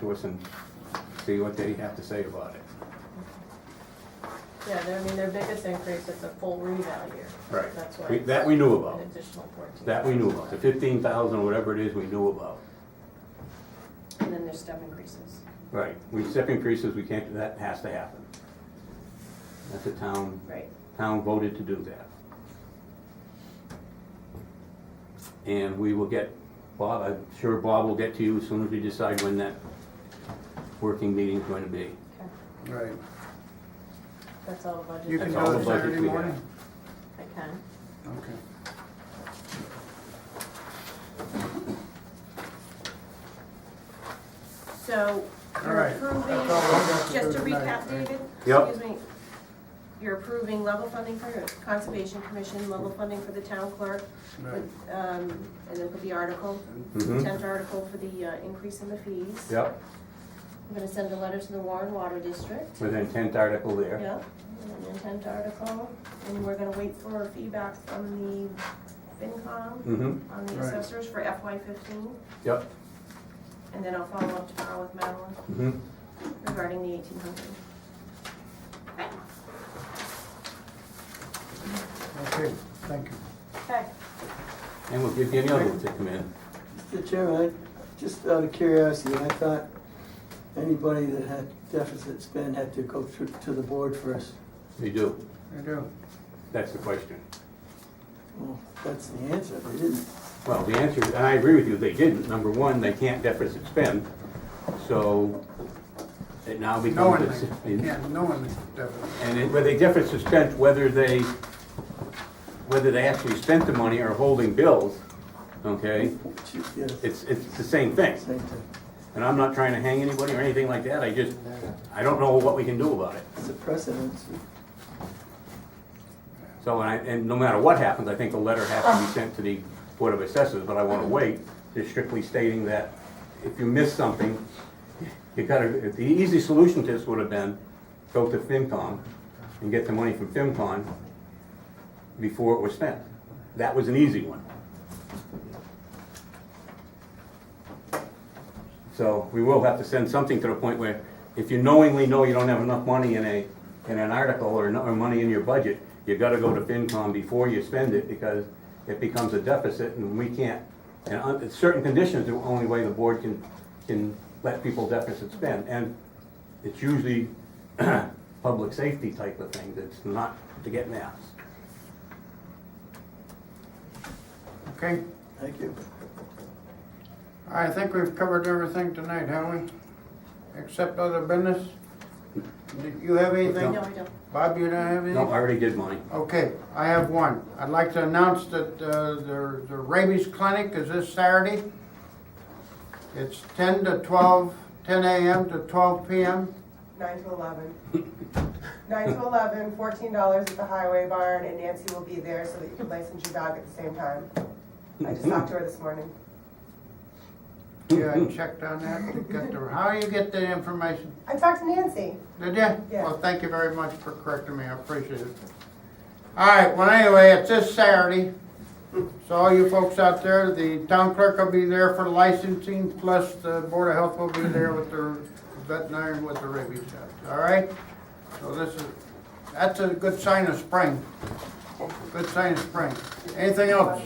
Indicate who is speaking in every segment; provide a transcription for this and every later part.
Speaker 1: to us and see what they have to say about it.
Speaker 2: Yeah, they're- I mean, their biggest increase is a full revalue.
Speaker 1: Right.
Speaker 2: That's why.
Speaker 1: We- That we knew about,
Speaker 2: An additional fourteen.
Speaker 1: that we knew about, the fifteen thousand, whatever it is, we knew about.
Speaker 3: And then there's step increases.
Speaker 1: Right, we, step increases, we can't, that has to happen. That's a town,
Speaker 3: Right.
Speaker 1: town voted to do that. And we will get, Bob, I'm sure Bob will get to you as soon as we decide when that working meeting's going to be.
Speaker 2: Okay,
Speaker 4: Right.
Speaker 2: That's all the budget.
Speaker 4: You can
Speaker 1: That's
Speaker 4: do
Speaker 1: all the
Speaker 4: it
Speaker 1: budget
Speaker 4: Saturday
Speaker 1: we have.
Speaker 4: morning?
Speaker 2: I can.
Speaker 4: Okay.
Speaker 3: So
Speaker 4: All
Speaker 3: you're
Speaker 4: right.
Speaker 3: approving,
Speaker 4: That's all we got to
Speaker 3: just to
Speaker 4: do tonight,
Speaker 3: recap, David?
Speaker 1: Yep.
Speaker 3: Excuse me. You're approving level funding for Conservation Commission, level funding for the town clerk,
Speaker 4: Right.
Speaker 3: with, um, and then put the article,
Speaker 1: Mhm.
Speaker 3: tenth article for the uh, increase in the fees.
Speaker 1: Yep,
Speaker 3: I'm gonna send a letter to the Warren Water District.
Speaker 1: with an intent article there.
Speaker 3: Yep, and an intent article, and we're gonna wait for feedback from the FinCom
Speaker 1: Mm-hmm,
Speaker 3: on the
Speaker 4: Right.
Speaker 3: assessors for FY fifteen,
Speaker 1: yep,
Speaker 3: and then I'll follow up tomorrow with Madeline
Speaker 1: mm-hmm.
Speaker 3: regarding the eighteen hundred.
Speaker 4: Okay, thank you.
Speaker 3: Okay.
Speaker 1: And we'll give Danielle room to come in.
Speaker 5: Mr. Chairman, I- just out of curiosity, I thought anybody that had deficit spend had to go through to the board first.
Speaker 1: We do,
Speaker 4: I do.
Speaker 1: that's the question.
Speaker 5: Well, that's the answer, they didn't.
Speaker 1: Well, the answer, is- and I agree with you, they didn't. Number one, they can't deficit spend, so it now
Speaker 4: No one,
Speaker 1: becomes. a-
Speaker 4: yeah, no one definitely.
Speaker 1: And it- whether they deficit spent, whether they, whether they actually spent the money or holding bills, okay?
Speaker 5: Yes,
Speaker 1: It's, it's the same thing.
Speaker 5: same thing.
Speaker 1: And I'm not trying to hang anybody or anything like that, I just, I don't know what we can do about it.
Speaker 5: It's a precedent.
Speaker 1: So, and I, and no matter what happens, I think a letter has to be sent to the Board of Assessors, but I wanna wait, just strictly stating that if you miss something, you gotta, the easy solution to this would have been, go to FinCom and get the money from FinCon before it was spent. That was an easy one. So, we will have to send something to the point where, if you knowingly know you don't have enough money in a, in an article or no, or money in your budget, you gotta go to FinCom before you spend it, because it becomes a deficit, and we can't, and under certain conditions, the only way the board can, can let people deficit spend, and it's usually public safety type of things, it's not to get maps.
Speaker 4: Okay,
Speaker 5: Thank you.
Speaker 4: I think we've covered everything tonight, haven't we? Except other business? Did you have anything?
Speaker 3: No, I don't.
Speaker 4: Bob, you don't have anything?
Speaker 1: No, I already did mine.
Speaker 4: Okay, I have one. I'd like to announce that uh, the the rabies clinic is this Saturday. It's 10 to 12, 10 a.m. to 12 p.m.
Speaker 6: Nine to eleven. Nine to eleven, fourteen dollars at the highway barn, and Nancy will be there so that you can license your dog at the same time. I just talked to her this morning.
Speaker 4: Yeah, I checked on that. to get the- How do you get the information?
Speaker 6: I talked to Nancy.
Speaker 4: Did you?
Speaker 6: Yeah.
Speaker 4: Well, thank you very much for correcting me, I appreciate it. All right, well, anyway, it's this Saturday, so all you folks out there, the town clerk will be there for licensing, plus the Board of Health will be there with their veterinarian with the rabies shot, all right? So this is, that's a good sign of spring, good sign of spring. Anything else?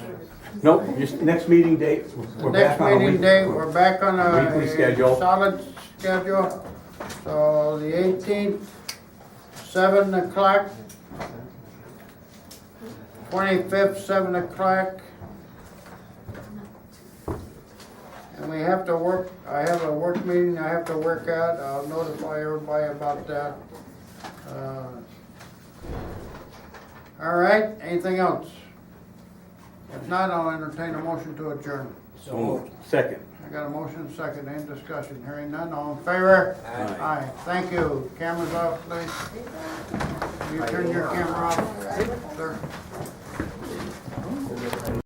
Speaker 1: Nope, just next meeting date, we're back
Speaker 4: Next
Speaker 1: on a week.
Speaker 4: meeting day, we're back on a.
Speaker 1: Weekly schedule.
Speaker 4: Solid schedule. So the eighteenth, seven o'clock. Twenty-fifth, seven o'clock. And we have to work, I have a work meeting I have to work out, I'll notify everybody about that. Uh, All right, anything else? If not, I'll entertain a motion to adjourn.
Speaker 1: So moved. Second.
Speaker 4: I got a motion, second, and discussion, hearing none, all in favor?
Speaker 1: Aye.
Speaker 4: Aye, thank you, cameras off, please. You turn your camera off, sir.